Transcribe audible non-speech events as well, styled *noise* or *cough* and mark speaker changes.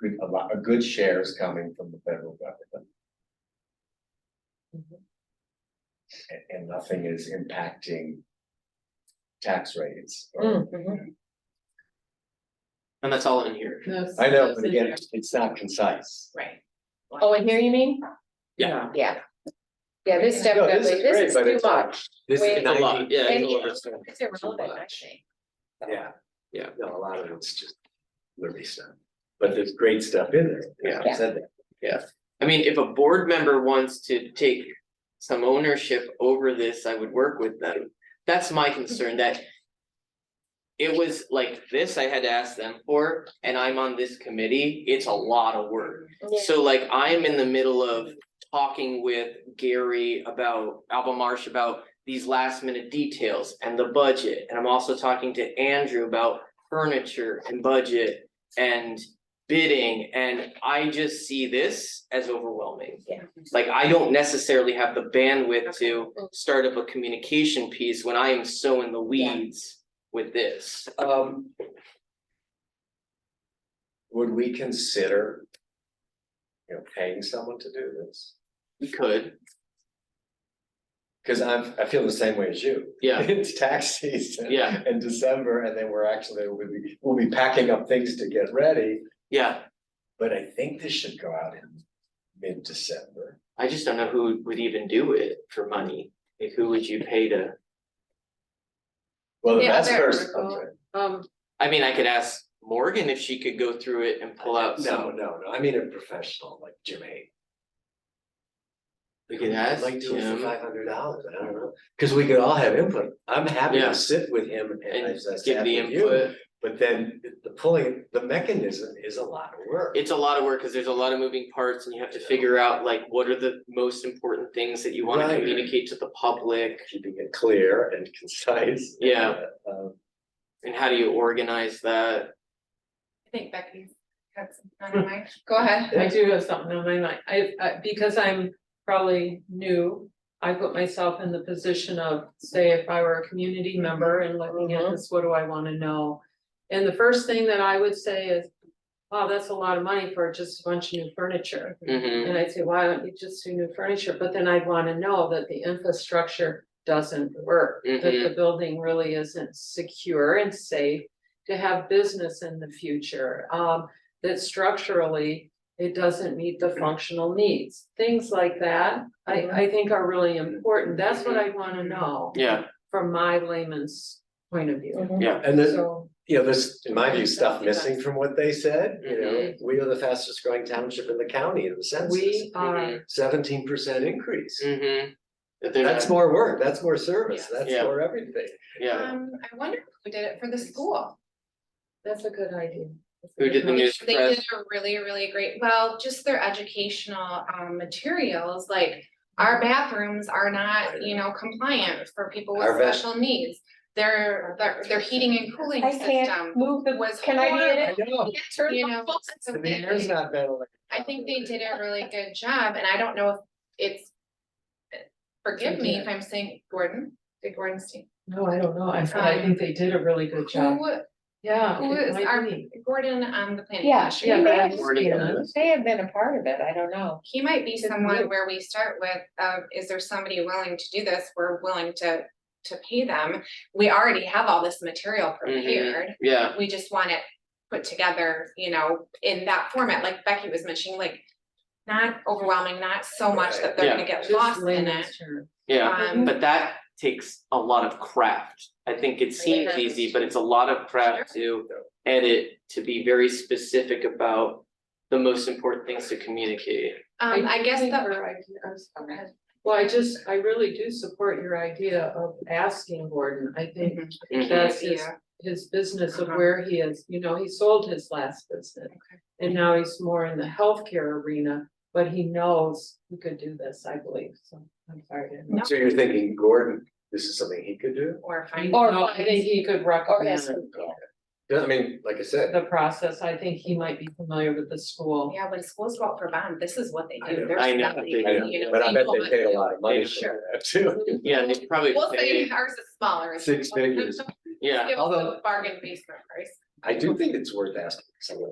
Speaker 1: good, a lot, a good share is coming from the federal government.
Speaker 2: Mhm.
Speaker 1: And, and nothing is impacting tax rates. or-
Speaker 2: Mm, mhm.
Speaker 3: And that's all in here.
Speaker 1: I know, but again, it's not concise.
Speaker 4: Right.
Speaker 2: Oh, and here you mean?
Speaker 3: Yeah.
Speaker 2: Yeah. Yeah, this
Speaker 4: No,
Speaker 1: this is
Speaker 2: definitely, this
Speaker 1: great,
Speaker 2: is
Speaker 1: but
Speaker 2: too
Speaker 1: it's uh, like-
Speaker 2: much.
Speaker 3: This
Speaker 2: Wait.
Speaker 3: is a lot, yeah.
Speaker 2: And
Speaker 3: it's a lot.
Speaker 2: it's it's irrelevant, I
Speaker 3: much.
Speaker 2: think.
Speaker 1: Yeah.
Speaker 3: Yeah.
Speaker 1: No, a lot of it's just liberty stuff, but there's great stuff in there. Yeah, I
Speaker 2: Yeah.
Speaker 1: said that.
Speaker 3: I mean, if a board member wants to take some ownership over this, I would work with them. That's my concern that. It was like this I had to ask them for, and I'm on this committee. It's a lot of work.
Speaker 2: Yeah.
Speaker 3: So like I'm in the middle of talking with Gary about Albemarle about these last minute details and the budget. And I'm also talking to Andrew about furniture and budget and bidding. And I just see this as overwhelming.
Speaker 2: Yeah.
Speaker 3: Like I don't necessarily have the bandwidth to
Speaker 2: Okay.
Speaker 3: start up a communication piece when I am so in the
Speaker 2: Yeah.
Speaker 3: weeds with this.
Speaker 1: Um. Would we consider? You know, paying someone to do this?
Speaker 3: We could,
Speaker 1: Cause I'm, I feel the same way as you. *laughs*
Speaker 3: Yeah.
Speaker 1: It's tax season.
Speaker 3: Yeah.
Speaker 1: In December, and then we're actually, we'll be, we'll be packing up things to get ready,
Speaker 3: yeah.
Speaker 1: but I think this should go out in mid-December.
Speaker 3: I just don't know who would even do it for money. Like who would you pay to?
Speaker 1: Well, the
Speaker 4: Yeah,
Speaker 1: best
Speaker 4: there
Speaker 1: person.
Speaker 4: we go.
Speaker 3: Uh,
Speaker 1: okay.
Speaker 2: Um,
Speaker 3: I mean, I could ask Morgan if she could go through it and pull out
Speaker 1: No,
Speaker 3: some,
Speaker 1: no, no, I mean a professional like Jim Hay.
Speaker 3: we could ask
Speaker 1: Like do it for
Speaker 3: Jim.
Speaker 1: five hundred dollars, I don't know, cause we could all have input, I'm happy
Speaker 3: Yeah.
Speaker 1: to sit with him and
Speaker 3: And
Speaker 1: as I
Speaker 3: give
Speaker 1: sat
Speaker 3: the
Speaker 1: with you.
Speaker 3: input.
Speaker 1: But then the pulling, the mechanism is a lot of work.
Speaker 3: It's a lot of work because there's a lot of moving parts and you have to figure out like what are the most important things that you want to
Speaker 1: Right.
Speaker 3: communicate to the public?
Speaker 1: Keeping it clear and concise.
Speaker 3: Yeah.
Speaker 1: Uh,
Speaker 3: And how do you organize that?
Speaker 4: I think Becky's had something on
Speaker 1: Hmm.
Speaker 4: her mind. Go ahead.
Speaker 5: I do have something on my mind, I, I, because I'm probably new, I put myself in the position of, say, if I were a community member and looking at
Speaker 2: Mhm.
Speaker 5: this, what do I wanna know? And the first thing that I would say is, wow, that's a lot of money for just a bunch of new furniture.
Speaker 3: Mhm.
Speaker 5: And I'd say, why don't you just do new furniture, but then I'd wanna know that the infrastructure doesn't work, that the building really isn't secure and safe. To have business in the future, um, that structurally, it doesn't meet the functional needs, things like that. I, I think are really important, that's what I wanna know
Speaker 3: Yeah,
Speaker 5: from my layman's point of view,
Speaker 1: Mm-hmm.
Speaker 2: mhm.
Speaker 3: yeah.
Speaker 1: And then,
Speaker 5: so.
Speaker 1: you know, there's, in my view, stuff missing from what they said, you know,
Speaker 3: Mhm.
Speaker 1: we are the fastest growing township in the county in the census.
Speaker 5: We are,
Speaker 3: Mhm.
Speaker 1: Seventeen percent increase,
Speaker 3: Mhm. That they're
Speaker 1: that's
Speaker 3: not-
Speaker 1: more work, that's more service,
Speaker 5: Yes.
Speaker 1: that's
Speaker 3: Yeah.
Speaker 1: more everything.
Speaker 3: Yeah,
Speaker 4: Um, I wonder who did it for the school.
Speaker 5: that's a good idea.
Speaker 3: Who did the
Speaker 4: They
Speaker 3: news press?
Speaker 4: did a really, really great, well, just their educational um materials, like our bathrooms are not, you know, compliant for people with
Speaker 1: Our vet-
Speaker 4: special needs. Their, their, their heating and cooling
Speaker 2: I can't
Speaker 4: system
Speaker 2: move the,
Speaker 4: um, was
Speaker 2: can I be in it?
Speaker 1: I know,
Speaker 2: Turn
Speaker 4: you
Speaker 2: my
Speaker 4: know,
Speaker 2: phone.
Speaker 4: so
Speaker 1: the
Speaker 4: they-
Speaker 1: mayor's not been elected.
Speaker 4: I think they did a really good job, and I don't know if it's. Forgive me if I'm saying Gordon, did Gordon Steen,
Speaker 5: No, I don't know, I, but I think they did a really good job,
Speaker 4: who,
Speaker 5: yeah.
Speaker 4: who
Speaker 5: it
Speaker 4: is
Speaker 5: might
Speaker 4: our,
Speaker 5: be.
Speaker 4: Gordon on the planning
Speaker 2: Yeah,
Speaker 4: commission?
Speaker 2: he
Speaker 5: Yeah,
Speaker 2: may
Speaker 5: Brad
Speaker 2: have-
Speaker 3: Morgan.
Speaker 2: They have been a part of it, I don't know.
Speaker 4: He might be
Speaker 5: Because we-
Speaker 4: someone where we start with, uh, is there somebody willing to do this? We're willing to, to pay them. We already have all this material prepared.
Speaker 3: yeah,
Speaker 4: We just want it put together, you know, in that format, like Becky was mentioning, like. Not overwhelming, not so much that they're
Speaker 3: Yeah.
Speaker 4: gonna get
Speaker 5: Just
Speaker 4: lost in it.
Speaker 5: layman's term.
Speaker 3: yeah.
Speaker 4: Um,
Speaker 3: But that takes a lot of craft. I think it seems
Speaker 4: Yeah.
Speaker 3: easy, but it's a lot of craft to edit, to be very specific about the most important things to communicate.
Speaker 4: um, I guess
Speaker 5: think
Speaker 4: that.
Speaker 5: her idea- I'm sorry.
Speaker 4: Okay.
Speaker 5: Well, I just, I really do support your idea of asking Gordon, I think
Speaker 4: Mhm.
Speaker 3: Mhm.
Speaker 5: that's his,
Speaker 4: Yeah.
Speaker 5: his business of
Speaker 4: Uh-huh.
Speaker 5: where he is, you know, he sold his last business.
Speaker 4: Okay.
Speaker 5: And now he's more in the healthcare arena, but he knows he could do this, I believe, so I'm sorry. to-
Speaker 4: No.
Speaker 1: So you're thinking Gordon, this is something he could do?
Speaker 4: Or find.
Speaker 5: No,
Speaker 2: Or-
Speaker 5: I think he could recommend
Speaker 1: Yeah, I mean, like I said,
Speaker 5: the process, I think he might be familiar with the school.
Speaker 4: Yeah, when schools go out for bond, this is what they
Speaker 1: I
Speaker 4: do.
Speaker 1: know.
Speaker 4: They're
Speaker 3: I know.
Speaker 4: steadily, you
Speaker 1: I know,
Speaker 4: know,
Speaker 1: but I bet they
Speaker 4: people-
Speaker 1: pay a lot of money for
Speaker 4: Sure.
Speaker 1: that too.
Speaker 3: Yeah, they probably
Speaker 4: We'll say
Speaker 3: pay,
Speaker 4: ours is smaller.
Speaker 1: Six figures.
Speaker 4: *laughs*
Speaker 3: yeah.
Speaker 4: Give us
Speaker 1: Although-
Speaker 4: a bargain basement price.
Speaker 1: I do think it's worth asking someone